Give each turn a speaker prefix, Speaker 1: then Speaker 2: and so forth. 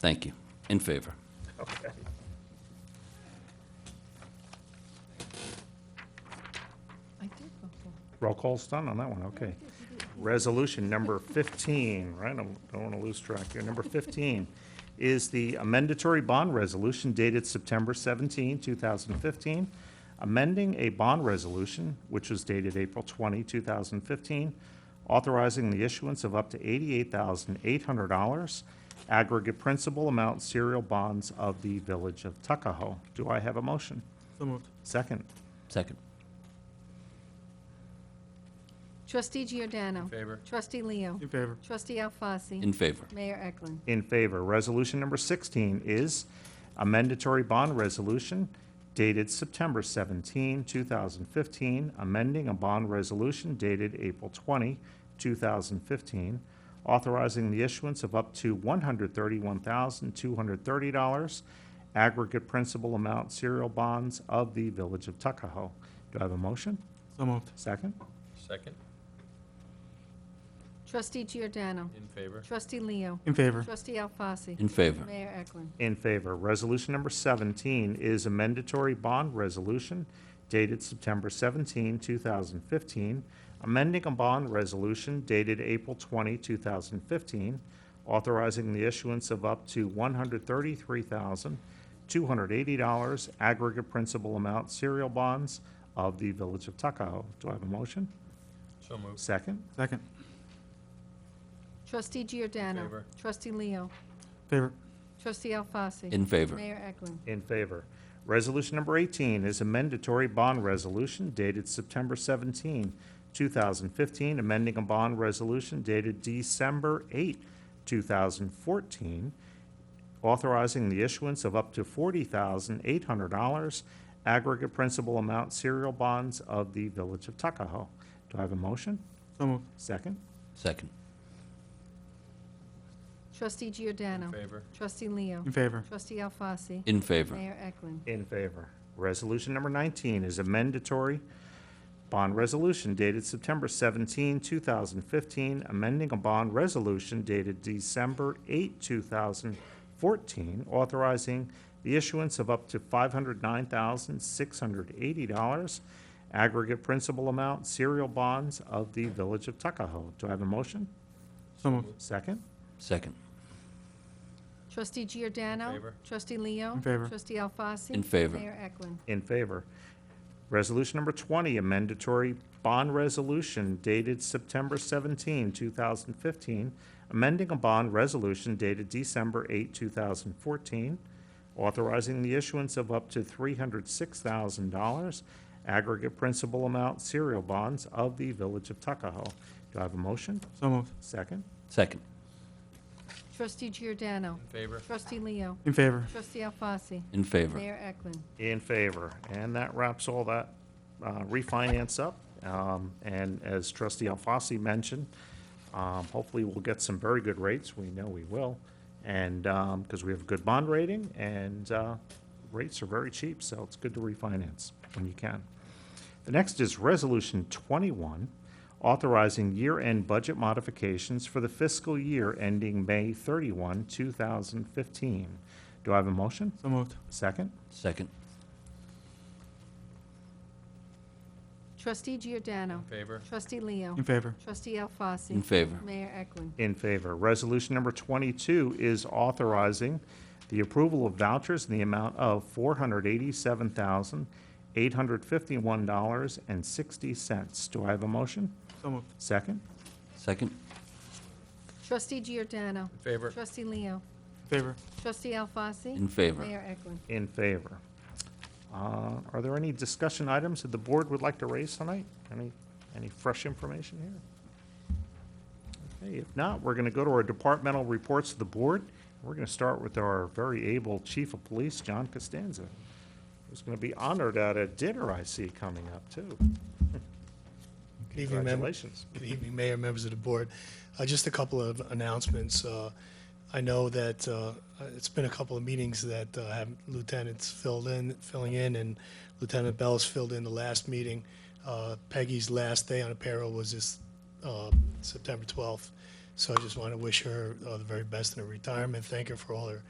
Speaker 1: Thank you. In favor.
Speaker 2: Okay.
Speaker 3: I did before.
Speaker 2: Roll call's done on that one, okay. Resolution number 15, right, I don't want to lose track here. Number 15 is the amendatory bond resolution dated September 17, 2015, amending a bond resolution, which was dated April 20, 2015, authorizing the issuance of up to $88,800 aggregate principal amount serial bonds of the Village of Tuckahoe. Do I have a motion?
Speaker 4: So moved.
Speaker 2: Second.
Speaker 1: Second.
Speaker 3: Trustee Giordano. In
Speaker 5: favor.
Speaker 3: Trustee Leo.
Speaker 4: In favor.
Speaker 3: Trustee Alfasi.
Speaker 1: In favor.
Speaker 3: Mayor Eklund.
Speaker 2: In favor. Resolution number 16 is a mandatory bond resolution dated September 17, 2015, amending a bond resolution dated April 20, 2015, authorizing the issuance of up to $131,230 aggregate principal amount serial bonds of the Village of Tuckahoe. Do I have a motion?
Speaker 4: So moved.
Speaker 2: Second?
Speaker 5: Second,
Speaker 3: Trustee Giordano.
Speaker 5: in favor.
Speaker 3: Trustee Leo.
Speaker 4: In favor.
Speaker 3: Trustee Alfasi.
Speaker 1: In favor.
Speaker 3: Mayor Eklund.
Speaker 2: In favor. Resolution number 17 is a mandatory bond resolution dated September 17, 2015, amending a bond resolution dated April 20, 2015, authorizing the issuance of up to $133,280 aggregate principal amount serial bonds of the Village of Tuckahoe. Do I have a motion?
Speaker 5: So moved.
Speaker 2: Second?
Speaker 4: Second.
Speaker 3: Trustee Giordano.
Speaker 5: Favor.
Speaker 3: Trustee Leo.
Speaker 4: Favor.
Speaker 3: Trustee Alfasi.
Speaker 1: In favor.
Speaker 3: Mayor Eklund.
Speaker 2: In favor. Resolution number 18 is a mandatory bond resolution dated September 17, 2015, amending a bond resolution dated December 8, 2014, authorizing the issuance of up to $40,800 aggregate principal amount serial bonds of the Village of Tuckahoe. Do I have a motion?
Speaker 4: So moved.
Speaker 2: Second?
Speaker 1: Second.
Speaker 3: Trustee Giordano.
Speaker 5: In favor.
Speaker 3: Trustee Leo.
Speaker 4: In favor.
Speaker 3: Trustee Alfasi.
Speaker 1: In favor.
Speaker 3: Mayor Eklund.
Speaker 2: In favor. Resolution number 19 is a mandatory bond resolution dated September 17, 2015, amending a bond resolution dated December 8, 2014, authorizing the issuance of up to $509,680 aggregate principal amount serial bonds of the Village of Tuckahoe. Do I have a motion?
Speaker 4: So moved.
Speaker 2: Second?
Speaker 1: Second.
Speaker 3: Trustee Giordano.
Speaker 5: In favor.
Speaker 3: Trustee Leo.
Speaker 4: In favor.
Speaker 3: Trustee Alfasi.
Speaker 1: In favor.
Speaker 3: Mayor Eklund.
Speaker 2: In favor. Resolution number 20, a mandatory bond resolution dated September 17, 2015, amending a bond resolution dated December 8, 2014, authorizing the issuance of up to $306,000 aggregate principal amount serial bonds of the Village of Tuckahoe. Do I have a motion?
Speaker 4: So moved.
Speaker 2: Second?
Speaker 1: Second.
Speaker 3: Trustee Giordano.
Speaker 5: In favor.
Speaker 3: Trustee Leo.
Speaker 4: In favor.
Speaker 3: Trustee Alfasi.
Speaker 1: In favor.
Speaker 3: Mayor Eklund.
Speaker 2: In favor. And that wraps all that uh, refinance up. Um, And as trustee Alfasi mentioned, um, hopefully we'll get some very good rates. We know we will. And, because we have a good bond rating and uh, rates are very cheap, so it's good to refinance when you can. The next is Resolution 21, authorizing year-end budget modifications for the fiscal year ending May 31, 2015. Do I have a motion?
Speaker 4: So moved.
Speaker 2: Second?
Speaker 1: Second.
Speaker 3: Trustee Giordano.
Speaker 5: In favor.
Speaker 3: Trustee Leo.
Speaker 4: In favor.
Speaker 3: Trustee Alfasi.
Speaker 1: In favor.
Speaker 3: Mayor Eklund.
Speaker 2: In favor. Resolution number 22 is authorizing the approval of vouchers in the amount of $487,851.60. Do I have a motion?
Speaker 4: So moved.
Speaker 2: Second?
Speaker 1: Second.
Speaker 3: Trustee Giordano.
Speaker 5: In favor.
Speaker 3: Trustee Leo.
Speaker 4: In favor.
Speaker 3: Trustee Alfasi.
Speaker 1: In favor.
Speaker 3: Mayor Eklund.
Speaker 2: In favor. Uh, Are there any discussion items that the board would like to raise tonight? Any, any fresh information here? Okay, if not, we're going to go to our departmental reports to the board. We're going to start with our very able Chief of Police, John Costanza, who's going to be honored at a dinner I see coming up, too.
Speaker 6: Good evening, mem-
Speaker 2: Congratulations.
Speaker 6: Good evening, Mayor, members of the board. Uh, Just a couple of announcements. Uh, I know that uh, it's been a couple of meetings that uh, have lieutenants filled in, filling in, and Lieutenant Bell's filled in the last meeting. Uh, Peggy's last day on apparel was this uh, September 12th. So I just want to wish her uh, the very best in her retirement, thank her for all her